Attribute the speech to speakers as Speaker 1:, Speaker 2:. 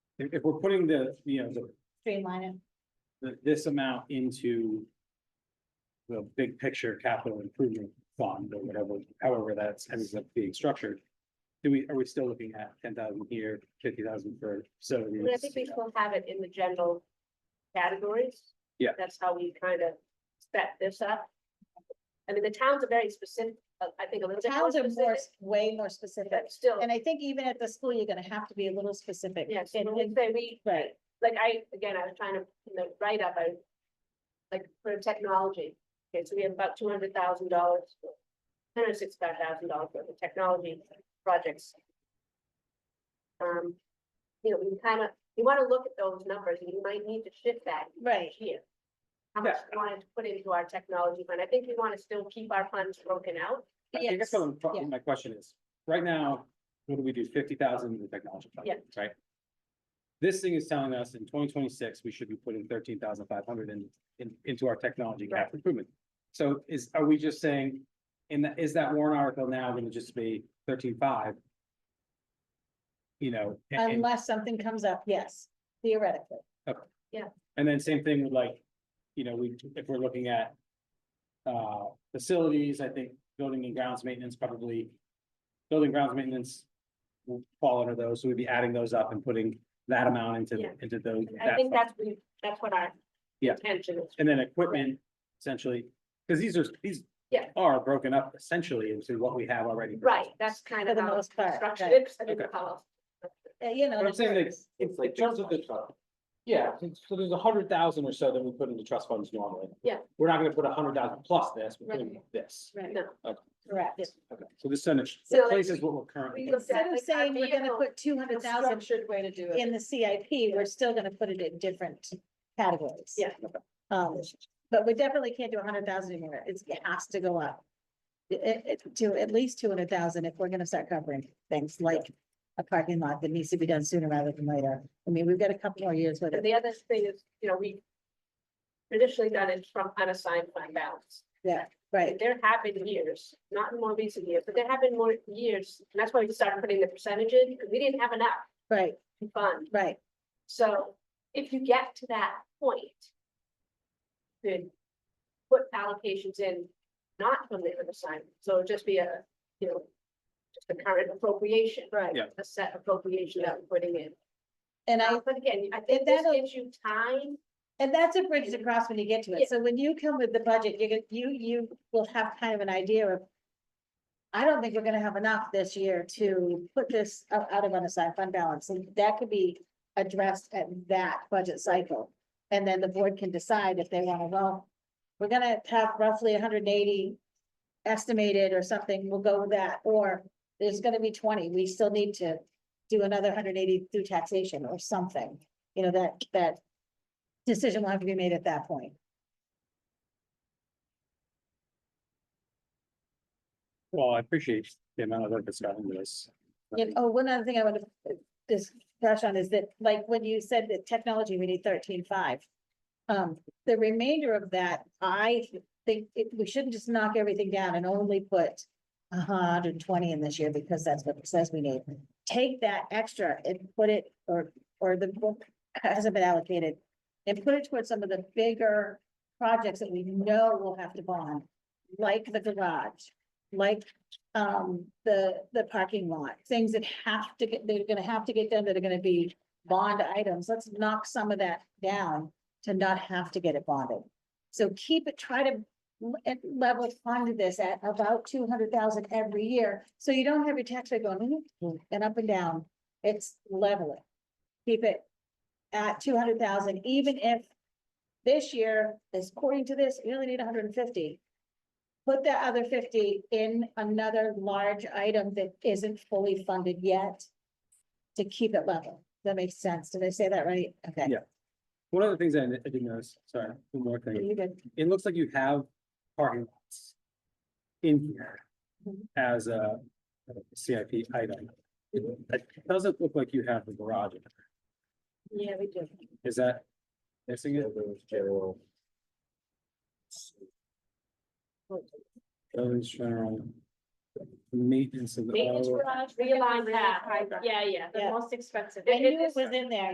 Speaker 1: If, if we're putting the, you know, the
Speaker 2: streamline it.
Speaker 1: th- this amount into the big picture capital improvement fund or whatever, however that's ends up being structured. Do we, are we still looking at ten thousand here, fifty thousand for facilities?
Speaker 3: I think we still have it in the general categories.
Speaker 1: Yeah.
Speaker 3: That's how we kind of set this up. I mean, the towns are very specific, uh, I think a little bit more
Speaker 2: Towns are more,
Speaker 3: specific,
Speaker 2: way more specific.
Speaker 3: but still,
Speaker 2: And I think even at the school, you're gonna have to be a little specific.
Speaker 3: yes,
Speaker 2: And-
Speaker 3: when we
Speaker 2: and-
Speaker 3: say we,
Speaker 2: Right,
Speaker 3: like I, again, I was trying to, in the write-up, I like for technology, okay, so we have about two hundred thousand dollars, hundred sixty-five thousand dollars worth of technology projects. Um, you know, we kind of, you want to look at those numbers, and you might need to shift that
Speaker 2: right.
Speaker 3: each year. How much we wanted to put into our technology fund, I think we want to still keep our funds broken out,
Speaker 1: I think
Speaker 2: Yes.
Speaker 1: that's what I'm pro-
Speaker 2: yeah.
Speaker 1: my question is, right now, what do we do, fifty thousand in the technology fund,
Speaker 3: Yeah.
Speaker 1: right? This thing is telling us in twenty twenty-six, we should be putting thirteen thousand five hundred in, in, into our technology
Speaker 3: Right.
Speaker 1: capital improvement. So is, are we just saying, in that, is that warrant article now gonna just be thirteen-five? You know, and- and,
Speaker 2: Unless something comes up, yes, theoretically.
Speaker 1: and then same thing with like, you know, we, if we're looking at uh, facilities, I think building and grounds maintenance probably, building grounds maintenance will fall under those, so we'd be adding those up and putting that amount into,
Speaker 3: Yeah.
Speaker 1: into those.
Speaker 3: I
Speaker 1: that
Speaker 3: think
Speaker 1: fund.
Speaker 3: that's, we- that's what our
Speaker 1: Yeah.
Speaker 3: intention is.
Speaker 1: And then equipment, essentially, because these are, these
Speaker 3: Yeah.
Speaker 1: are broken up essentially into what we have already.
Speaker 3: Right, that's kind
Speaker 2: For
Speaker 3: of
Speaker 2: the
Speaker 3: how it's
Speaker 2: most part,
Speaker 3: structured,
Speaker 2: right.
Speaker 3: It's- I don't know
Speaker 1: Okay.
Speaker 3: how else.
Speaker 2: Uh, You know.
Speaker 1: But I'm
Speaker 2: the
Speaker 1: saying that-
Speaker 2: terms.
Speaker 1: In in terms of the, yeah, so there's a hundred thousand or so that we put into trust funds normally.
Speaker 3: Yeah.
Speaker 1: We're not gonna put a hundred thousand plus this, we're putting this.
Speaker 2: Right,
Speaker 3: No.
Speaker 2: correct.
Speaker 1: Okay, so this kind of
Speaker 3: So, like,
Speaker 1: replaces what we're currently.
Speaker 3: we
Speaker 1: doing.
Speaker 3: look-
Speaker 2: Instead of
Speaker 3: Like our
Speaker 2: saying we're gonna
Speaker 3: vehicle-
Speaker 2: put two hundred thousand
Speaker 4: Structured way to do it.
Speaker 2: in the CIP, we're still gonna put it in different categories.
Speaker 3: Yeah.
Speaker 2: Um, but we definitely can't do a hundred thousand anymore. It's, it has to go up. It- it- to at least two hundred thousand if we're gonna start covering things like a parking lot that needs to be done sooner rather than later. I mean, we've got a couple more years with
Speaker 3: And
Speaker 2: it.
Speaker 3: the other thing is, you know, we traditionally done it from unassigned fund balance.
Speaker 2: Yeah,
Speaker 3: And
Speaker 2: right,
Speaker 3: there have been years, not in more recent years, but there have been more years, and that's why we started putting the percentage in, because we didn't have enough
Speaker 2: right,
Speaker 3: to fund.
Speaker 2: right.
Speaker 3: So if you get to that point, then put allocations in, not from the unassigned, so it'd just be a, you know, just a current appropriation.
Speaker 2: Right.
Speaker 1: Yeah.
Speaker 3: A set appropriation that we're putting in.
Speaker 2: And I,
Speaker 3: Now, But again, I think
Speaker 2: And
Speaker 3: this
Speaker 2: that'll-
Speaker 3: gives you time
Speaker 2: and that's a bridge to cross when you get to
Speaker 3: Yeah.
Speaker 2: it. So when you come with the budget, you're gonna, you, you will have kind of an idea of. I don't think we're gonna have enough this year to put this o- out of unassigned fund balance, and that could be addressed at that budget cycle. And then the board can decide if they wanna, well, we're gonna have roughly hundred and eighty estimated or something, we'll go with that, or there's gonna be twenty, we still need to do another hundred and eighty through taxation or something, you know, that, that decision will have to be made at that point.
Speaker 1: Well, I appreciate the amount of work that's gone into this.
Speaker 2: And, oh, one other thing I want to just touch on is that, like, when you said that technology, we need thirteen-five. Um, the remainder of that, I think it, we shouldn't just knock everything down and only put a hundred and twenty in this year because that's what it says we need. Take that extra and put it, or, or the book hasn't been allocated. And put it towards some of the bigger projects that we know we'll have to bond, like the garage, like um, the, the parking lot, things that have to get, they're gonna have to get done, that are gonna be bond items, let's knock some of that down to not have to get it bonded. So keep it, try to l- at level fund this at about two hundred thousand every year, so you don't have your tax rate going "Mm, mm," and up and down, it's leveling. Keep it at two hundred thousand, even if this year, is according to this, we only need hundred and fifty put that other fifty in another large item that isn't fully funded yet to keep it level. That makes sense. Did I say that right? Okay.
Speaker 1: Yeah. One of the things I I didn't notice, sorry, one more thing,
Speaker 2: You good?
Speaker 1: it looks like you have parking lots in here
Speaker 2: Mhm.
Speaker 1: as a CIP item. It it doesn't look like you have the garage. in there.
Speaker 3: Yeah, we do.
Speaker 1: Is that missing it? Those general maintenance of the.
Speaker 3: Maintenance
Speaker 1: auto-
Speaker 3: garage, realign
Speaker 4: Realign
Speaker 3: that,
Speaker 4: that.
Speaker 3: yeah, yeah, the
Speaker 2: Yeah.
Speaker 3: most expensive.
Speaker 2: I
Speaker 3: It-
Speaker 2: knew
Speaker 3: it
Speaker 2: it
Speaker 3: is-
Speaker 2: was in there.